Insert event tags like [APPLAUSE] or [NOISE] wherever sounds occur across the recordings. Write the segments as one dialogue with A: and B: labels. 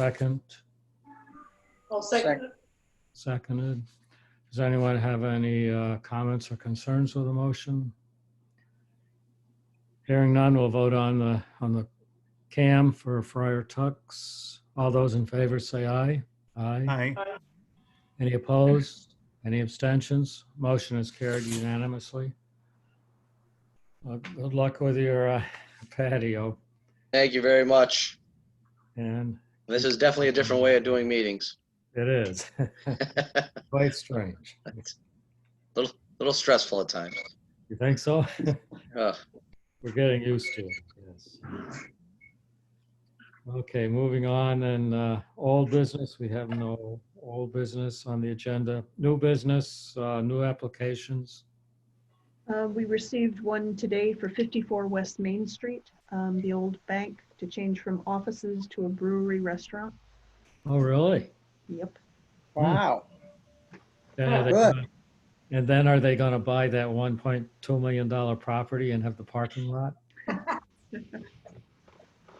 A: Second,
B: I'll second it.
A: seconded. Does anyone have any uh, comments or concerns with the motion? Hearing none, we'll vote on the, on the CAM for Friar Tuck's. All those in favor say aye. Aye.
C: Aye.
A: Any opposed? Any abstentions? Motion is carried unanimously. Uh, Good luck with your uh, patio
D: Thank you very much.
A: and
D: This is definitely a different way of doing meetings.
A: it is [LAUGHS] quite strange.
D: little stressful at times.
A: You think so?
D: Ugh.
A: We're getting used to it, yes. Okay, moving on, and uh, old business, we have no old business on the agenda. New business, uh, new applications.
E: Uh, We received one today for 54 West Main Street, um, the old bank, to change from offices to a brewery restaurant.
A: Oh, really?
E: Yep.
C: Wow.
A: Then are they
C: Good.
A: gonna- And then are they going to buy that 1.2 million dollar property and have the parking
C: [LAUGHS]
A: lot?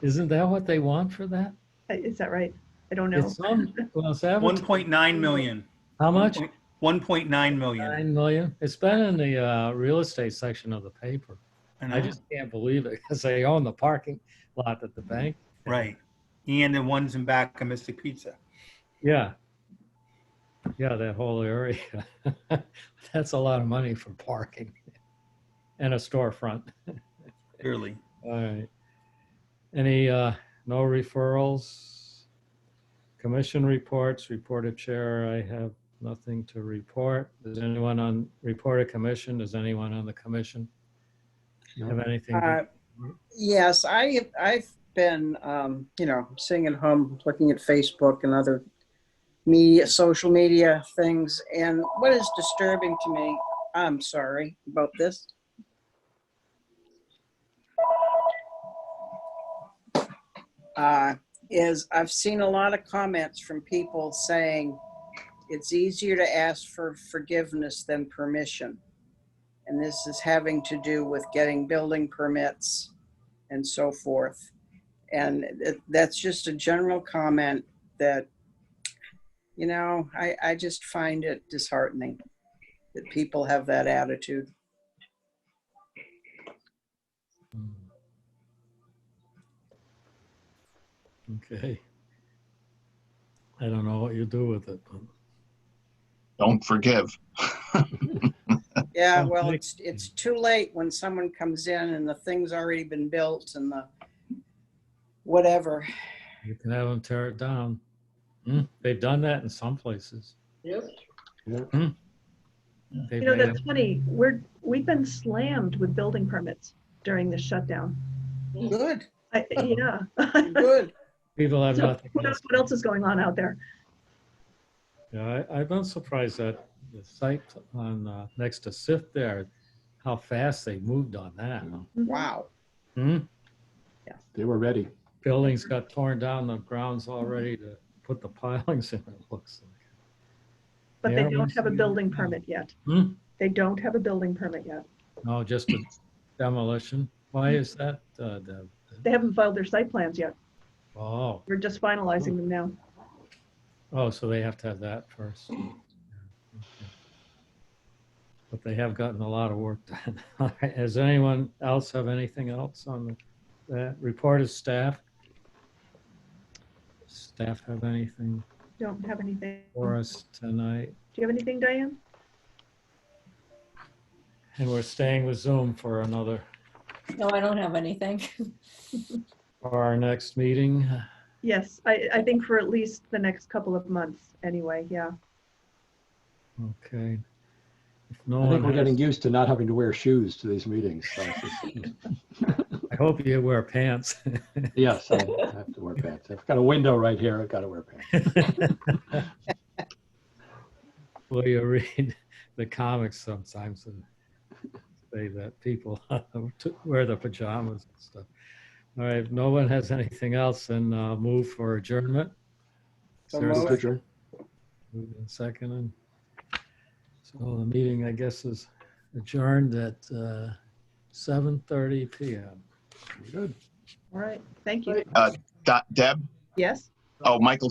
A: Isn't that what they want for that?
E: Uh, Is that right? I don't know.
A: It's some, well, it's
C: [LAUGHS]
A: advertised-
C: 1.9 million.
A: how much?
C: 1.9 million.
A: Nine million. It's been in the uh, real estate section of the paper.
C: And
A: I just can't believe it because they own the parking lot at the bank.
C: Right. And the ones in back of Mystic Pizza.
A: Yeah. Yeah, that whole area. [LAUGHS] That's a lot of money for parking [LAUGHS] and a storefront.
C: Clearly.
A: All right. Any, uh, no referrals? Commission reports, reported chair, I have nothing to report. Does anyone on, reported commission, does anyone on the commission have anything? to-
F: Uh, Yes, I, I've been, um, you know, sitting at home, looking at Facebook and other media, social media things, and what is disturbing to me, I'm sorry about this, uh, is I've seen a lot of comments from people saying it's easier to ask for forgiveness than permission. And this is having to do with getting building permits and so forth. And it- that's just a general comment that, you know, I, I just find it disheartening that people have that attitude.
A: Okay. I don't know what you do with it. but-
G: don't forgive.
F: Yeah,
A: Oh,
F: well,
A: thank-
F: it's, it's too late when someone comes in and the thing's already been built and the whatever.
A: You can have them tear it down. Hmm, They've done that in some places. Hmm?
B: Yep.
A: They
E: You know,
A: made
E: that's
A: them-
E: funny. We're, we've been slammed with building permits during the shutdown.
F: Good,
A: [LAUGHS]
E: I- Yeah.
F: good.
A: People have
E: So,
A: nothing.
E: What
A: else.
E: else what else is going on out there?
A: Yeah, I, I've been surprised that the site on, uh, next to Sith there, how fast they moved on that.
F: Wow.
A: Hmm?
H: They were ready.
A: Buildings got torn down, the ground's all ready to put the [LAUGHS] pilings in, it looks like.
E: But they
A: Yeah,
E: don't
A: once
E: have a
A: you-
E: building permit yet.
A: Hmm?
E: They don't have a building permit yet.
A: No, Oh, just a demolition. Why is that, uh, Deb?
E: They haven't filed their site plans yet.
A: Oh,
E: We're just finalizing them now.
A: oh, so they have to have that first. Yeah, okay. But they have gotten a lot of work done. [LAUGHS] All right, Does anyone else have anything else on the- that report of staff? Staff have anything
E: Don't have anything.
A: for us tonight?
E: Do you have anything, Diane?
A: And we're staying with Zoom for another,
I: No, I don't have anything.
A: for our next meeting. [SIGHS]
E: Yes, I, I think for at least the next couple of months, anyway, yeah.
A: Okay. If no
H: I think
A: one
H: we're
A: has-
H: getting used to not having to wear shoes to these meetings. so it's just-
A: I hope you wear pants. [LAUGHS]
H: Yes, I have to wear pants. I've got a window right here. I've got to wear pants.
A: [LAUGHS] Well, you read the comics sometimes and say that people [LAUGHS] wear the pajamas and stuff. All right, if no one has anything else, then uh, move for adjournment. Is
F: So
A: there a
F: moved.
A: second?
H: Picture.
A: Moved and seconded. So the meeting, I guess, is adjourned at uh, 7:30 PM.
H: Good.
E: All right, thank you.
B: Right.
G: Dot- Deb,
E: Yes?
G: Oh, Michael